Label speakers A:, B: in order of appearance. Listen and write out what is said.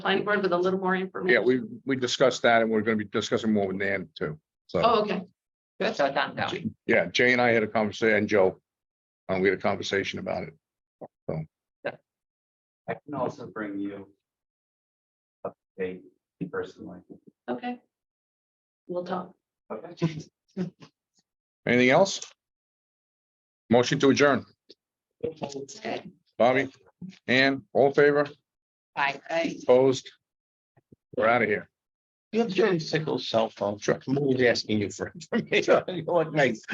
A: planning board with a little more information?
B: Yeah, we, we discussed that and we're gonna be discussing more with Nan too. So,
A: Oh, okay. Good.
C: So it's ongoing.
B: yeah, Jay and I had a conversation and Joe. Um, we had a conversation about it.
D: I can also bring you. Up to date personally.
A: Okay. We'll talk.
D: Okay.
B: Anything else? Motion to adjourn.
A: Okay.
B: Bobby, Ann, all in favor,
C: Bye.
B: opposed? We're out of here.
E: You have Jerry Sickles' cell phone.
B: Sure.
E: I'm always asking you for information. You're like, "Mate,